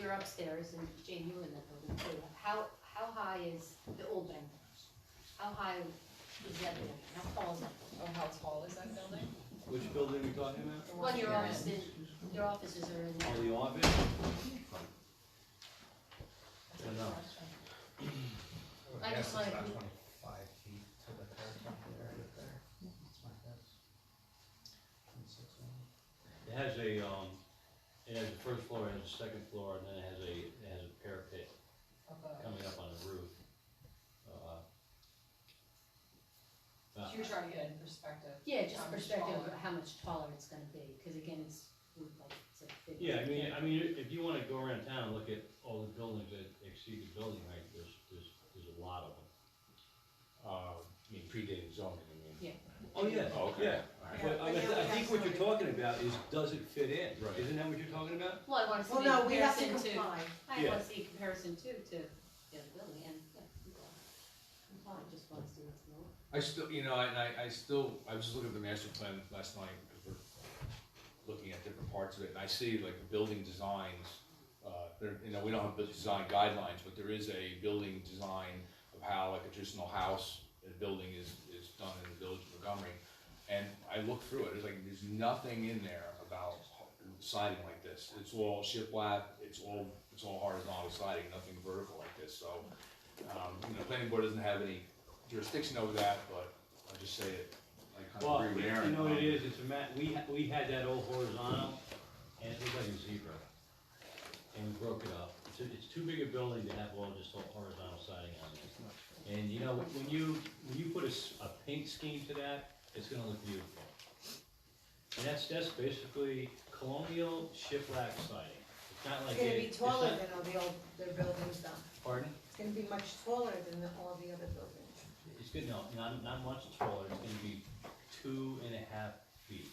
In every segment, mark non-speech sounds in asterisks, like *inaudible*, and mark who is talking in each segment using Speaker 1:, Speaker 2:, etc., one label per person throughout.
Speaker 1: you're upstairs, and Jane, you were in that building too, how, how high is the old bank? How high is that building, how tall is that?
Speaker 2: Oh, how tall is that building?
Speaker 3: Which building are we talking about?
Speaker 2: The
Speaker 1: Well,
Speaker 2: one
Speaker 1: your
Speaker 2: you're in.
Speaker 1: office, your offices are in
Speaker 3: Oh,
Speaker 1: there,
Speaker 3: the office?
Speaker 2: That's a good
Speaker 3: No.
Speaker 2: question.
Speaker 1: I just
Speaker 4: guess it's
Speaker 1: wanna-
Speaker 4: about Twenty-five feet to the curb area there, that's my guess. 26, maybe.
Speaker 3: It has a, um, it has a first floor, it has a second floor, and then it has a, it has a parapet
Speaker 2: Above.
Speaker 3: coming up on the roof. Uh,
Speaker 2: So
Speaker 3: uh,
Speaker 2: you're trying to get in perspective.
Speaker 1: yeah, just
Speaker 2: How much
Speaker 1: perspective
Speaker 2: taller?
Speaker 1: of how much taller it's gonna be, cause again, it's, like, it's a big.
Speaker 3: Yeah, I mean, I mean, if you wanna go around town and look at all the buildings that exceed the building height, there's, there's, there's a lot of them.
Speaker 5: Uh, I mean, predating zoning, I mean.
Speaker 3: Oh, yeah,
Speaker 5: Oh, okay.
Speaker 3: yeah.
Speaker 5: All right.
Speaker 3: But I, mean, I think what you're talking about is, does it fit in?
Speaker 5: Right.
Speaker 3: Isn't that what you're talking about?
Speaker 1: Well, I wanna see
Speaker 6: Well,
Speaker 1: the
Speaker 6: no, we have to
Speaker 1: comparison to,
Speaker 6: comply.
Speaker 1: I
Speaker 3: Yeah.
Speaker 1: wanna see a comparison too, to the other building, and, yeah, comply. Comply, just wanna see what's going on.
Speaker 5: I still, you know, and I, I still, I was just looking at the master plan last night, because we're looking at different parts of it, and I see like the building designs, uh, there, you know, we don't have building design guidelines, but there is a building design of how like a traditional house, a building is, is done in the village of Montgomery. And I looked through it, it's like, there's nothing in there about siding like this, it's all shiplap, it's all, it's all horizontal siding, nothing vertical like this, so. Um, you know, planning board doesn't have any jurisdiction over that, but I just say it, I
Speaker 3: Well,
Speaker 5: kind of agree with Aaron.
Speaker 3: you know what it
Speaker 5: um,
Speaker 3: is, it's a mat, we, ha- we had that old horizontal, and it looked like a zebra. And we broke it up, it's, a- it's too big a building to have all just all horizontal siding on it. And you know, when you, when you put a, s- a paint scheme to that, it's gonna look beautiful. And that's, that's basically colonial shiplap siding, it's not
Speaker 6: It's
Speaker 3: like.
Speaker 6: gonna
Speaker 3: it-
Speaker 6: be
Speaker 3: it's
Speaker 6: taller
Speaker 3: not-
Speaker 6: than all the old, the buildings though.
Speaker 3: Pardon?
Speaker 6: It's gonna be much taller than the- all the other buildings.
Speaker 3: It's good, no, not, not much taller, it's gonna be two and a half feet.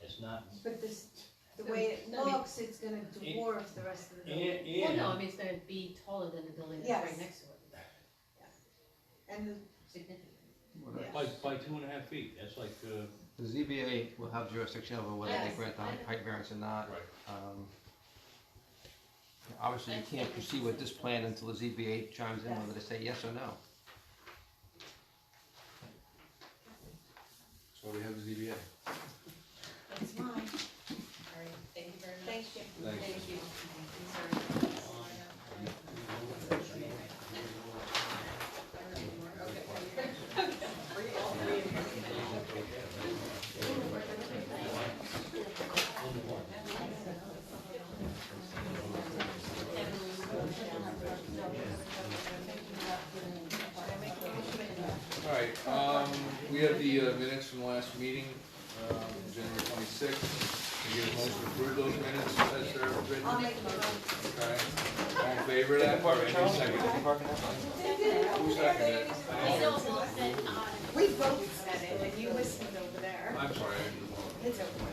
Speaker 3: It's not,
Speaker 6: But this, the way it
Speaker 1: No, I mean-
Speaker 6: looks, it's gonna dwarf the rest of the
Speaker 3: and,
Speaker 6: building.
Speaker 3: and.
Speaker 1: Well, no, I mean, it's gonna be taller than the building that's right
Speaker 6: Yes.
Speaker 1: next to it,
Speaker 6: And the
Speaker 1: significantly.
Speaker 3: By, by two and a half feet, that's like, uh,
Speaker 7: The ZBA will have jurisdiction over whether they
Speaker 1: Yes,
Speaker 7: grant the
Speaker 1: I know.
Speaker 7: height variance or not.
Speaker 5: Right.
Speaker 7: Um, Obviously, you can't proceed with this plan until the ZBA chimes in whether they say yes or no.
Speaker 5: That's why we have the ZBA.
Speaker 6: It's mine.
Speaker 2: All right, thank you very much.
Speaker 6: Thank you.
Speaker 5: Thanks.
Speaker 2: Thank you. Sorry. *laughs* Okay. *laughs* Are you all three in here?
Speaker 5: All right, um, we have the uh, minutes from the last meeting, um, January twenty-sixth. Can you get a motion to approve those minutes as they're written?
Speaker 6: I'll make the motion.
Speaker 5: Okay. All in favor of that? Or any second? Who seconded it?
Speaker 6: We both said it, and you listened over there.
Speaker 5: I'm sorry. I didn't vote.
Speaker 6: It's okay.